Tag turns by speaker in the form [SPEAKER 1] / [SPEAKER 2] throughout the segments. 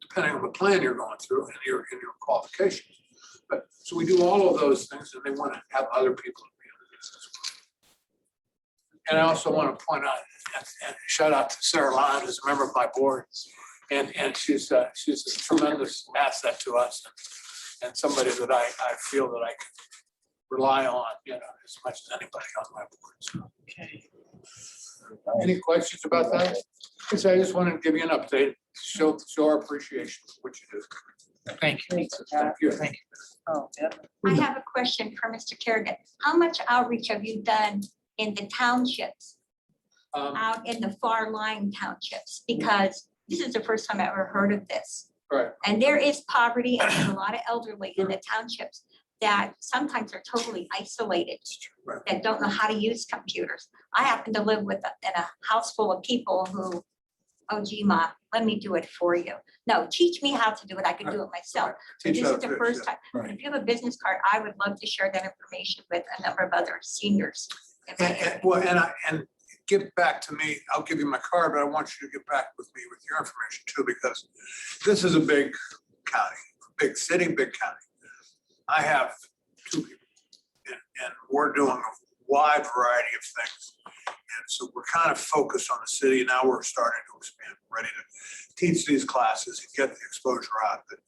[SPEAKER 1] depending on the plan you're going through and your, and your qualifications. But, so we do all of those things and they want to have other people. be on this as well. And I also want to point out, and- and shout out to Sarah Lyon, who's a member of my board. And, and she's, uh, she's a tremendous asset to us and somebody that I, I feel that I can rely on, you know, as much as anybody on my board. so. Any questions about that? Because I just wanted to give you an update, show, show our appreciation for what you do.
[SPEAKER 2] Thank you.
[SPEAKER 1] Thank you.
[SPEAKER 2] Thank
[SPEAKER 3] Oh, yeah.
[SPEAKER 4] I have a question for Mr. Kerrigan. How much outreach have you done in the townships,
[SPEAKER 1] Um,
[SPEAKER 4] out in the far lying townships? Because this is the first time I ever heard of this.
[SPEAKER 1] Right.
[SPEAKER 4] And there is poverty and there's a lot of elderly in the townships that sometimes are totally isolated,
[SPEAKER 1] Right.
[SPEAKER 4] that don't know how to use computers. I happen to live with, a- in a house full of people who, oh gee, ma, let me do it for you. No, teach me how to do it. I can do it myself. This
[SPEAKER 1] teach
[SPEAKER 4] is
[SPEAKER 1] other
[SPEAKER 4] the
[SPEAKER 1] kids,
[SPEAKER 4] first
[SPEAKER 1] yeah.
[SPEAKER 4] time.
[SPEAKER 1] Right.
[SPEAKER 4] If you have a business card, I would love to share that information with a number of other seniors. in my
[SPEAKER 1] And,
[SPEAKER 4] area.
[SPEAKER 1] and, well, and I, and get back to me, I'll give you my card, but I want you to get back with me with your information too, because this is a big county, big city, big county. I have two people, and, and we're doing a wide variety of things. And so we're kind of focused on the city, now we're starting to expand, We're ready to teach these classes and get the exposure out, but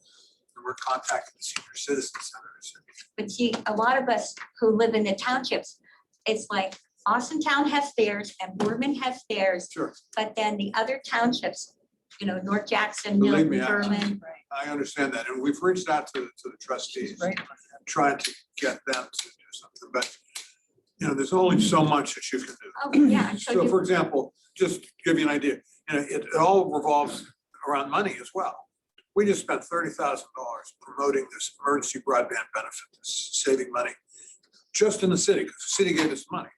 [SPEAKER 1] we're contacting the senior citizen centers.
[SPEAKER 4] But see, a lot of us who live in the townships, it's like Austin Town has theirs and Boardman has theirs,
[SPEAKER 1] Sure,
[SPEAKER 4] but then the other townships, you know, North Jackson,
[SPEAKER 1] Believe
[SPEAKER 4] Milton,
[SPEAKER 1] me, I-
[SPEAKER 4] Berlin.
[SPEAKER 1] I understand that, and we've reached out to, to the trustees.
[SPEAKER 3] Right.
[SPEAKER 1] trying to get them to do something, but, you know, there's only so much that you can do.
[SPEAKER 4] Oh, yeah, and so
[SPEAKER 1] So
[SPEAKER 4] you,
[SPEAKER 1] for example, just to give you an idea, you know, it, it all revolves around money as well. We just spent thirty thousand dollars promoting this emergency broadband benefit, this saving money, just in the city, because the city gave us money.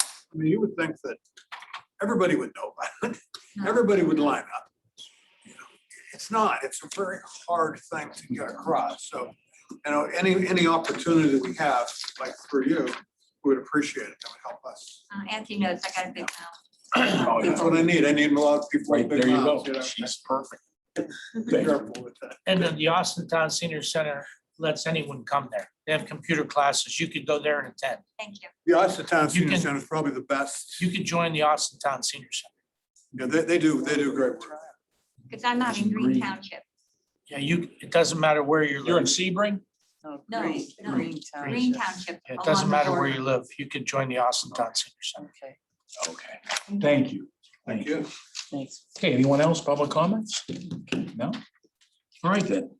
[SPEAKER 1] I mean, you would think that everybody would know about it, everybody would line up. You know, It's not, it's a very hard thing to get across, so, you know, any, any opportunity that we have, like for you, we would appreciate it, that would help us.
[SPEAKER 4] uh, Anthony knows I got a big mouth.
[SPEAKER 5] Oh,
[SPEAKER 1] That's
[SPEAKER 5] yeah.
[SPEAKER 1] what I need. I need a lot of people.
[SPEAKER 5] Right,
[SPEAKER 1] with big
[SPEAKER 5] there you
[SPEAKER 1] mouths,
[SPEAKER 5] go.
[SPEAKER 1] know.
[SPEAKER 5] She's perfect.
[SPEAKER 1] Be careful with that.
[SPEAKER 2] And then the Austin Town Senior Center lets anyone come there. They have computer classes. You could go there and attend.
[SPEAKER 4] Thank you.
[SPEAKER 1] The Austintown
[SPEAKER 2] You
[SPEAKER 1] Senior
[SPEAKER 2] can-
[SPEAKER 1] Center is probably the best.
[SPEAKER 2] You could join the Austin Town Senior Center.
[SPEAKER 1] Yeah, they, they do, they do great work.
[SPEAKER 4] Because I'm not in Green Township.
[SPEAKER 2] Yeah, you, it doesn't matter where you're
[SPEAKER 5] You're in
[SPEAKER 2] living.
[SPEAKER 5] Sebring?
[SPEAKER 4] No,
[SPEAKER 3] Oh, green-
[SPEAKER 4] no.
[SPEAKER 3] green
[SPEAKER 4] Green
[SPEAKER 3] township.
[SPEAKER 4] Township.
[SPEAKER 2] It
[SPEAKER 4] along
[SPEAKER 2] doesn't
[SPEAKER 4] the
[SPEAKER 2] matter where
[SPEAKER 4] border.
[SPEAKER 2] you live. You could join the Austin Town Senior Center.
[SPEAKER 3] Okay,
[SPEAKER 5] Okay, thank you.
[SPEAKER 1] Thank
[SPEAKER 5] Thank you.
[SPEAKER 1] you.
[SPEAKER 3] thanks.
[SPEAKER 5] Okay, anyone else, public comments? No? All right then.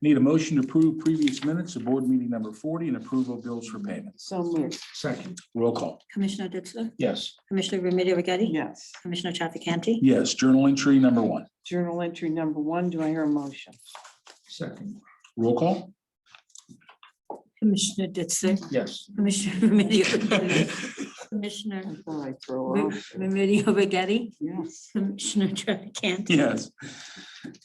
[SPEAKER 5] Need a motion to approve previous minutes of board meeting number forty and approval of bills for payment.
[SPEAKER 3] So moved.
[SPEAKER 5] Second. Roll call.
[SPEAKER 6] Commissioner Ditzler?
[SPEAKER 5] Yes.
[SPEAKER 6] Commissioner Remedy Agati?
[SPEAKER 3] Yes.
[SPEAKER 6] Commissioner Trafficante?
[SPEAKER 5] Yes, journal entry number one.
[SPEAKER 3] Journal entry number one, do I hear a motion?
[SPEAKER 5] Second. Roll call.
[SPEAKER 6] Commissioner Ditzler?
[SPEAKER 5] Yes.
[SPEAKER 6] Commissioner Remedy Agati? Commissioner
[SPEAKER 3] I thought I throw
[SPEAKER 6] Re-
[SPEAKER 3] out.
[SPEAKER 6] Remedy Agati?
[SPEAKER 3] Yes.
[SPEAKER 6] Commissioner Trafficante?
[SPEAKER 5] Yes.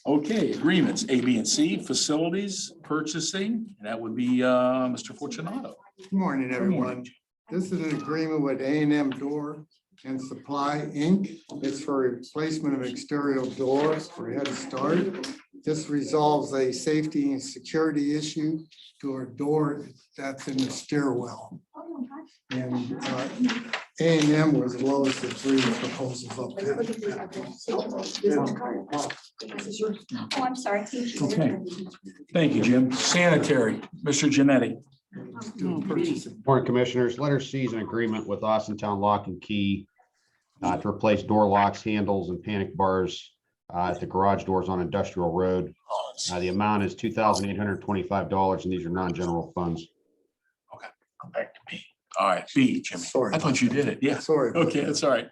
[SPEAKER 5] Okay, agreements, A, B, and C, facilities, purchasing, that would be uh, Mr. Fortunato.
[SPEAKER 7] Good Morning, everyone. This is an agreement with A and M Door and Supply Inc. It's for replacement of exterior doors for Head Start. This resolves a safety and security issue to a door that's in the stairwell. And A and M was lowest of three proposals up there.
[SPEAKER 4] Oh, I'm sorry.
[SPEAKER 5] Okay. Thank you, Jim. Sanitary, Mr. Janetti.
[SPEAKER 7] Doing purchasing.
[SPEAKER 8] Board of Commissioners, letter C is an agreement with Austin Town Lock and Key uh, to replace door locks, handles, and panic bars uh, at the garage doors on Industrial Road. Uh, The amount is two thousand eight hundred twenty-five dollars, and these are non-general funds.
[SPEAKER 5] Back to me. All right, B, Jimmy.
[SPEAKER 7] Sorry.
[SPEAKER 5] I thought you did it. Yes.
[SPEAKER 7] Sorry. about
[SPEAKER 5] Okay,
[SPEAKER 7] that.
[SPEAKER 5] that's all right.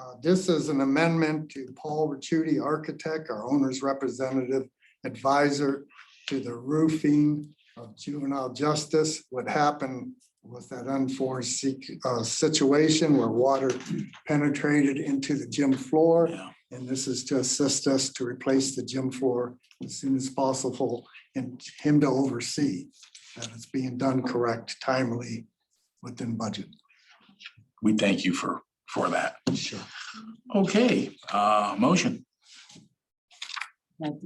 [SPEAKER 7] Uh, This is an amendment to Paul Ricciuti, architect, our owner's representative advisor to the roofing of juvenile justice. What happened was that unforeseen uh, situation where water penetrated into the gym floor.
[SPEAKER 5] Yeah.
[SPEAKER 7] And this is to assist us to replace the gym floor as soon as possible and him to oversee that it's being done correct, timely, within budget.
[SPEAKER 5] We thank you for, for that.
[SPEAKER 7] Sure.
[SPEAKER 5] Okay, uh, motion.